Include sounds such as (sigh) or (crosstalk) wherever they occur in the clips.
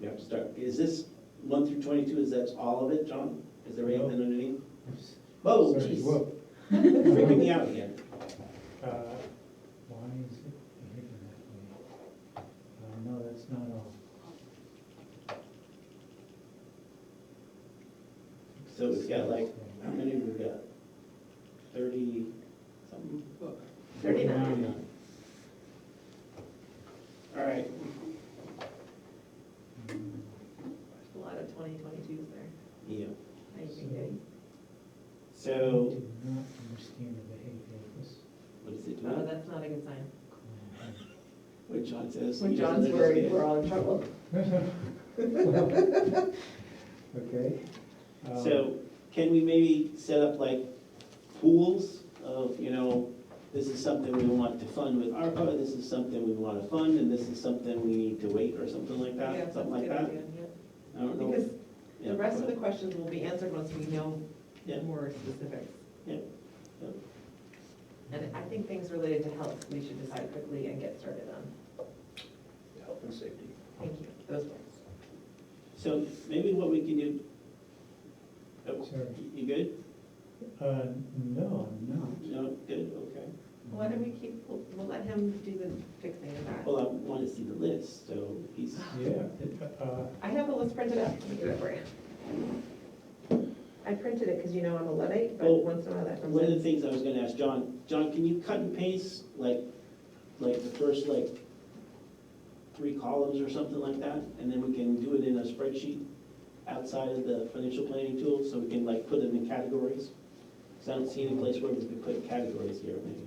You have to start, is this one through twenty-two, is that all of it, John? Is there anything underneath? Whoa, Sorry, jeez, (laughs) whoa. freaking me out again. Uh, Why is it written that way? Uh, no, that's not all. So it's got like, how many we got? Thirty something? Thirty-nine. All right, Mm, A lot of twenty twenty-twos there. yeah, I agree. I so, do not understand the behavior of this. what is it, Oh, John? that's not a good sign. client. What John says. When he doesn't John's worried, understand. we're all in (laughs) trouble. Okay. um, So can we maybe set up like pools of, you know, this is something we want to fund with ARPA, this is something we want to fund, and this is something we need to wait, or something like Yeah, that, that's something a like good that? idea, yeah. I don't know. Because Yeah, the rest of but- the questions will be answered once we know Yeah. more specifics. Yeah, yeah. And I think things related to health, we should decide quickly and get started on. Health and safety. Thank you, those ones. So maybe what we can do. Oh, Sorry. You good? Uh, no, I'm not. No, good, okay. Why don't we keep, we'll we'll let him do the fixing of that. Well, I want to see the list, so he's, Yeah, uh, I have a list printed up, let me get it for you. I printed it because you know I'm a Luddite, but Oh, once in a while that comes one of the in. things I was gonna ask John, John, can you cut and paste like, like the first like three columns or something like that? And then we can do it in a spreadsheet outside of the financial planning tool, so we can like put them in categories? Because I don't see any place where we could put categories here, maybe.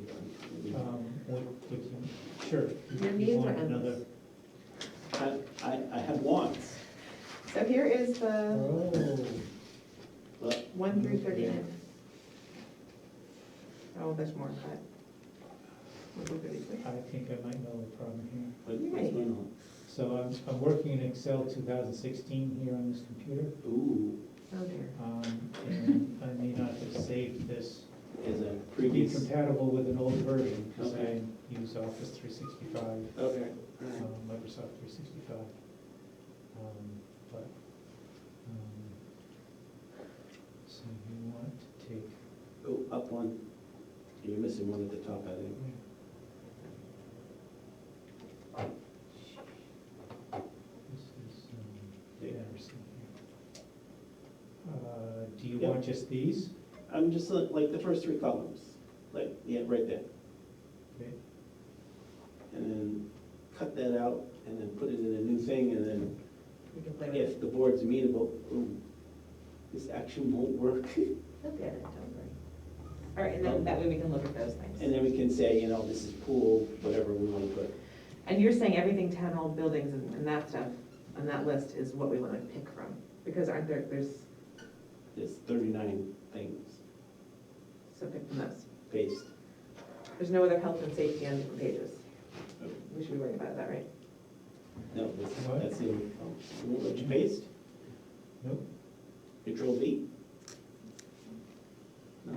maybe. um, what, what you, sure. you- Your you needs are want another- endless. I, I, I have wants, So here is the Oh. but one through thirty-nine. Oh, there's more, but we'll go through these quick. I think I might know the problem here. what- what's going on? So I'm, I'm working in Excel two thousand sixteen here on this computer, Ooh, Oh dear. um, and I may not have saved this. is a To be previous. compatible with an old version, because Okay. I use Office three sixty-five, Okay. um, Microsoft three sixty-five. Um, but, um, so you want to take, Go Oh, up one. You're missing one at the top, I think. this is, um, Yeah. Anderson here. Uh, do you Yeah. want just these? I'm just like, like the first three columns, like, yeah, right there. Okay. And then cut that out and then put it in a new thing and then We can play with it. if the board's amenable, ooh, this action won't work. (laughs) They'll get it, don't worry. All right, and then that way we can look at those And things. then we can say, you know, this is pool, whatever we want to put. And you're saying everything town hall buildings and and that stuff on that list is what we want to pick from? Because aren't there, there's, There's thirty-nine things, so pick from those. paste. There's no other health and safety on different pages. Oh. We should be worried about that, right? No, this- What? that's the, oh, it won't let you paste? Nope, Control V? No,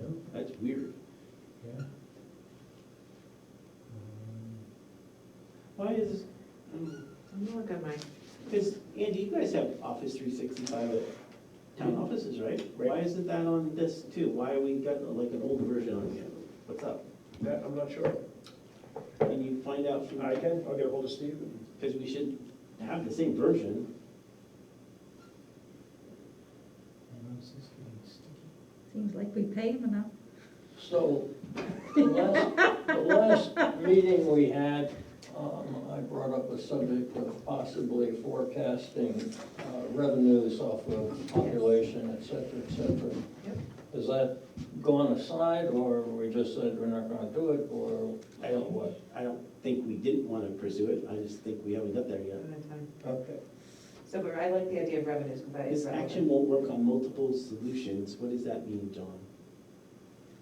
nope, that's weird. yeah. Um, Why is, um, I'm gonna look at my, Because, Andy, you guys have Office three sixty-five at town offices, right? Why isn't that on this too? Why we got like an old version on here? What's up? That, I'm not sure. Can you find out? I can, I'll get ahold of Steve and Because we should have the same version. My mouse is getting sticky. Seems like we pay him enough. So, the last, the last meeting we had, um, I brought up a subject of possibly forecasting uh, revenues off of population, et cetera, et cetera. Yep. Has that gone aside, or we just said we're not gonna do it, or I don't, what? I don't think we didn't want to pursue it. I just think we haven't got there yet. I'm on time. Okay. So, but I like the idea of revenues, because that is This action relevant. won't work on multiple solutions. What does that mean, John?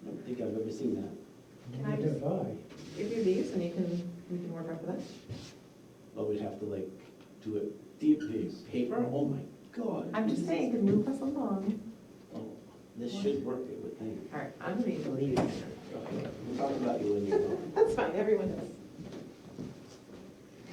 I don't think I've ever seen that. Can I Neither just- have I. Give you these, and you can, we can work off of that. But we'd have to like do it deep deep paper? Oh my God. I'm just saying, can move us along. Oh, This should work, I would think. All right, I'm gonna need to leave. Okay, We'll talk about you when you're home. That's fine, everyone does.